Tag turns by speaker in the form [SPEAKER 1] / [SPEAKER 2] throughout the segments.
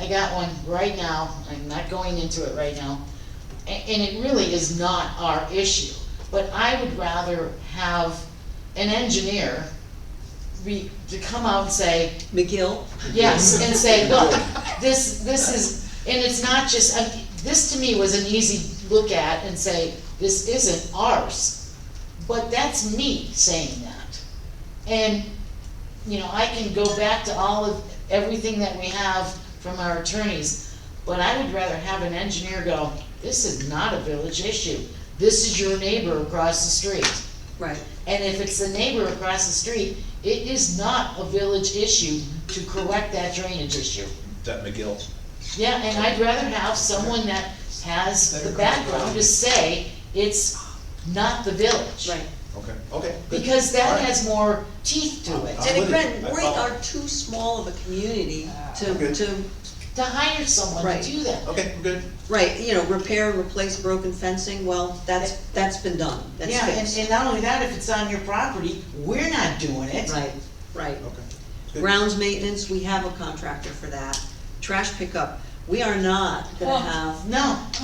[SPEAKER 1] I got one right now, I'm not going into it right now, a- and it really is not our issue. But I would rather have an engineer re, to come out and say,
[SPEAKER 2] McGill?
[SPEAKER 1] yes, and say, look, this, this is, and it's not just, I- this to me was an easy look at and say, this isn't ours. But that's me saying that. And, you know, I can go back to all of, everything that we have from our attorneys, but I would rather have an engineer go, this is not a village issue. This is your neighbor across the street.
[SPEAKER 2] Right.
[SPEAKER 1] And if it's the neighbor across the street, it is not a village issue to correct that drainage issue.
[SPEAKER 3] That McGill,
[SPEAKER 1] Yeah, and I'd rather have someone that has the background to say it's not the village.
[SPEAKER 2] Right.
[SPEAKER 3] okay, okay. good.
[SPEAKER 1] Because
[SPEAKER 3] All
[SPEAKER 1] that
[SPEAKER 3] right.
[SPEAKER 1] has more teeth to it,
[SPEAKER 3] I'm
[SPEAKER 2] And
[SPEAKER 3] with
[SPEAKER 2] again,
[SPEAKER 3] you. I
[SPEAKER 2] we
[SPEAKER 3] follow.
[SPEAKER 2] are too small of a community
[SPEAKER 3] Okay.
[SPEAKER 2] to, to,
[SPEAKER 1] to hire someone
[SPEAKER 2] Right.
[SPEAKER 1] to do that.
[SPEAKER 3] Okay, I'm good.
[SPEAKER 2] right, you know, repair, replace broken fencing, well, that's, that's been done, that's
[SPEAKER 4] Yeah, and,
[SPEAKER 2] fixed.
[SPEAKER 4] and not only that, if it's on your property, we're not doing it.
[SPEAKER 2] Right, right.
[SPEAKER 3] Okay. Good.
[SPEAKER 2] Grounds maintenance, we have a contractor for that. Trash pickup, we are not gonna
[SPEAKER 5] Oh.
[SPEAKER 2] have
[SPEAKER 4] No,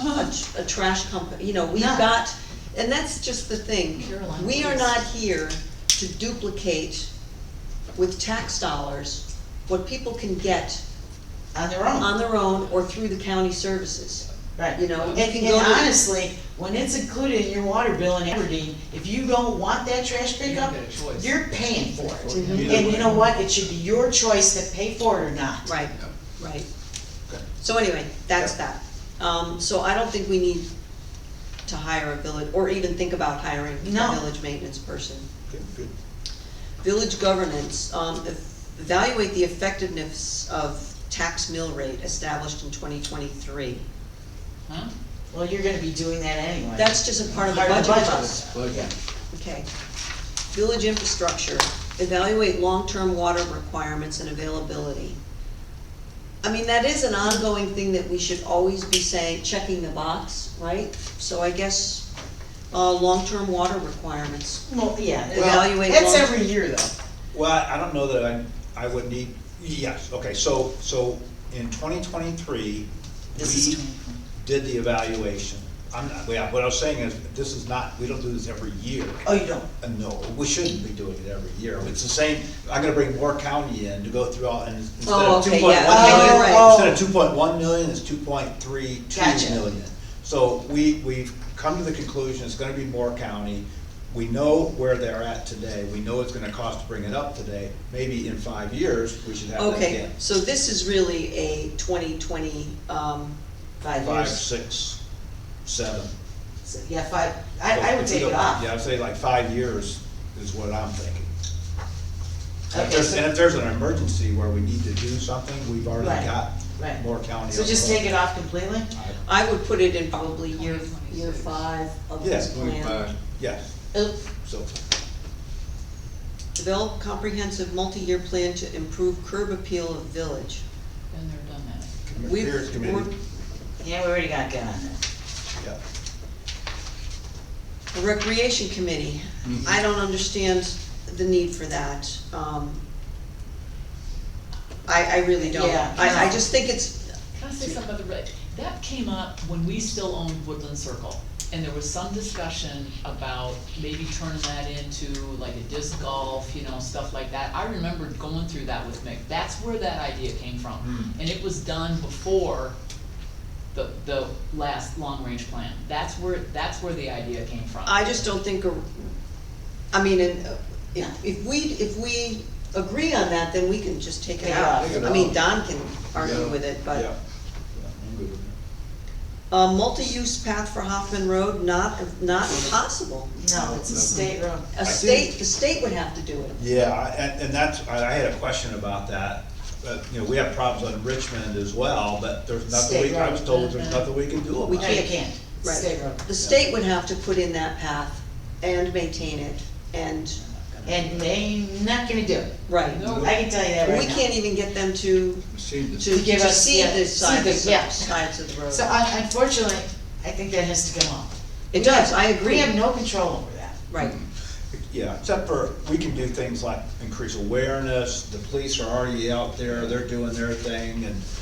[SPEAKER 2] a, tr- a trash company, you know, we've
[SPEAKER 4] No.
[SPEAKER 2] got, and that's just the thing.
[SPEAKER 1] Caroline,
[SPEAKER 2] We are
[SPEAKER 1] please.
[SPEAKER 2] not here to duplicate with tax dollars what people can get
[SPEAKER 4] on their own,
[SPEAKER 2] on their own or through the county services.
[SPEAKER 4] right.
[SPEAKER 2] you know,
[SPEAKER 4] And,
[SPEAKER 2] you can
[SPEAKER 4] and
[SPEAKER 2] go to-
[SPEAKER 4] honestly, when it's included in your water bill in Aberdeen, if you don't want that trash pickup,
[SPEAKER 6] get a choice.
[SPEAKER 4] you're paying for it.
[SPEAKER 3] Either
[SPEAKER 4] And
[SPEAKER 3] way.
[SPEAKER 4] you know what, it should be your choice to pay for it or not.
[SPEAKER 2] Right, right.
[SPEAKER 3] Okay.
[SPEAKER 2] So anyway, that's
[SPEAKER 3] Yep.
[SPEAKER 2] that. Um, so I don't think we need to hire a village, or even think about hiring a
[SPEAKER 4] No.
[SPEAKER 2] village maintenance person.
[SPEAKER 3] Good, good.
[SPEAKER 2] Village governance, um, ev- evaluate the effectiveness of tax mill rate established in twenty twenty-three.
[SPEAKER 4] Huh? Well, you're gonna be doing that anyway.
[SPEAKER 2] That's just a part of the
[SPEAKER 4] Part
[SPEAKER 2] budget
[SPEAKER 4] of the
[SPEAKER 2] process.
[SPEAKER 6] Budget.
[SPEAKER 2] Okay. Village infrastructure, evaluate long-term water requirements and availability. I mean, that is an ongoing thing that we should always be saying, checking the box, right? So I guess, uh, long-term water requirements.
[SPEAKER 4] Well, yeah.
[SPEAKER 2] Evaluate
[SPEAKER 4] That's
[SPEAKER 2] long-
[SPEAKER 4] every year though.
[SPEAKER 3] Well, I I don't know that I, I would need, yes, okay, so, so in twenty twenty-three,
[SPEAKER 4] This is
[SPEAKER 3] we
[SPEAKER 4] 2023.
[SPEAKER 3] did the evaluation. I'm not, yeah, what I was saying is, this is not, we don't do this every year.
[SPEAKER 4] Oh, you don't?
[SPEAKER 3] Uh, No, we shouldn't be doing it every year. It's the same, I'm gonna bring Moore County in to go through all, and instead
[SPEAKER 2] Oh,
[SPEAKER 3] of two
[SPEAKER 2] okay,
[SPEAKER 3] point
[SPEAKER 2] yeah, Oh,
[SPEAKER 4] okay, you're right.
[SPEAKER 3] one million, instead of two point one million, it's two point three two
[SPEAKER 4] Gotcha.
[SPEAKER 3] million. So we, we've come to the conclusion it's gonna be Moore County. We know where they're at today. We know it's gonna cost to bring it up today. Maybe in five years, we should have that
[SPEAKER 2] Okay,
[SPEAKER 3] again.
[SPEAKER 2] so this is really a twenty twenty, um,
[SPEAKER 4] Five
[SPEAKER 3] Five,
[SPEAKER 4] years.
[SPEAKER 3] six, seven.
[SPEAKER 4] So, Yeah, five, I, I would
[SPEAKER 3] If we
[SPEAKER 4] take it
[SPEAKER 3] go-
[SPEAKER 4] off.
[SPEAKER 3] Yeah, I'd say like five years is what I'm thinking. And if
[SPEAKER 4] Okay,
[SPEAKER 3] there's,
[SPEAKER 4] so-
[SPEAKER 3] and if there's an emergency where we need to do something, we've
[SPEAKER 4] Right,
[SPEAKER 3] already got
[SPEAKER 4] right.
[SPEAKER 3] more county.
[SPEAKER 4] So just take it off completely?
[SPEAKER 2] I would put it in probably year, year
[SPEAKER 6] 2026.
[SPEAKER 2] five of
[SPEAKER 3] Yeah,
[SPEAKER 2] this plan.
[SPEAKER 3] Yes,
[SPEAKER 4] Oop.
[SPEAKER 3] so,
[SPEAKER 2] Develop comprehensive multi-year plan to improve curb appeal of village.
[SPEAKER 5] Been there, done that.
[SPEAKER 2] We've-
[SPEAKER 3] Mayor's committee,
[SPEAKER 4] Yeah, we already got that on there.
[SPEAKER 3] yeah.
[SPEAKER 2] The Recreation Committee,
[SPEAKER 3] Mm-hmm.
[SPEAKER 2] I don't understand the need for that. Um, I, I really don't.
[SPEAKER 4] Yeah,
[SPEAKER 2] I, I
[SPEAKER 4] no.
[SPEAKER 2] just think it's,
[SPEAKER 5] Can I say something about the red? That came up when we still owned Woodland Circle, and there was some discussion about maybe turning that into like a disc golf, you know, stuff like that. I remember going through that with Mick, that's where that idea came from.
[SPEAKER 3] Hmm.
[SPEAKER 5] And it was done before the, the last long-range plan. That's where, that's where the idea came from.
[SPEAKER 2] I just don't think, a- I mean, and, uh, if, if we, if we agree on that, then we can just take it
[SPEAKER 4] Take it
[SPEAKER 2] out.
[SPEAKER 3] off. Take it
[SPEAKER 2] I mean,
[SPEAKER 3] out.
[SPEAKER 2] Don can argue
[SPEAKER 3] Yeah,
[SPEAKER 2] with it,
[SPEAKER 3] Yeah,
[SPEAKER 2] but.
[SPEAKER 3] yeah, I'm good with that.
[SPEAKER 2] Uh, multi-use path for Hoffman Road, not, not possible.
[SPEAKER 4] No, it's a state road.
[SPEAKER 2] A state, the state would have to do it.
[SPEAKER 3] Yeah, I- and, and that's, I, I had a question about that, but, you know, we have problems on Richmond as well, but there's nothing we,
[SPEAKER 4] State
[SPEAKER 3] I was
[SPEAKER 4] road.
[SPEAKER 3] told there's nothing we can do about it.
[SPEAKER 2] We
[SPEAKER 4] No, you can't. It's a
[SPEAKER 2] Right.
[SPEAKER 4] state road.
[SPEAKER 2] The state would have to put in that path and maintain it, and,
[SPEAKER 4] And they ain't not gonna do it.
[SPEAKER 2] right.
[SPEAKER 5] No.
[SPEAKER 4] I can tell you that
[SPEAKER 2] We
[SPEAKER 4] right now.
[SPEAKER 2] can't even get them to, to,
[SPEAKER 4] To give
[SPEAKER 2] to
[SPEAKER 4] us-
[SPEAKER 2] see
[SPEAKER 4] yeah,
[SPEAKER 2] the
[SPEAKER 4] see the-
[SPEAKER 2] sides,
[SPEAKER 4] yeah.
[SPEAKER 2] of- sides of the road.
[SPEAKER 4] So un- unfortunately, I think that has to come off.
[SPEAKER 2] It does, I
[SPEAKER 4] We
[SPEAKER 2] agree,
[SPEAKER 4] have no control over that.
[SPEAKER 2] right,
[SPEAKER 3] Yeah, except for, we can do things like increase awareness, the police are already out there, they're doing their thing, and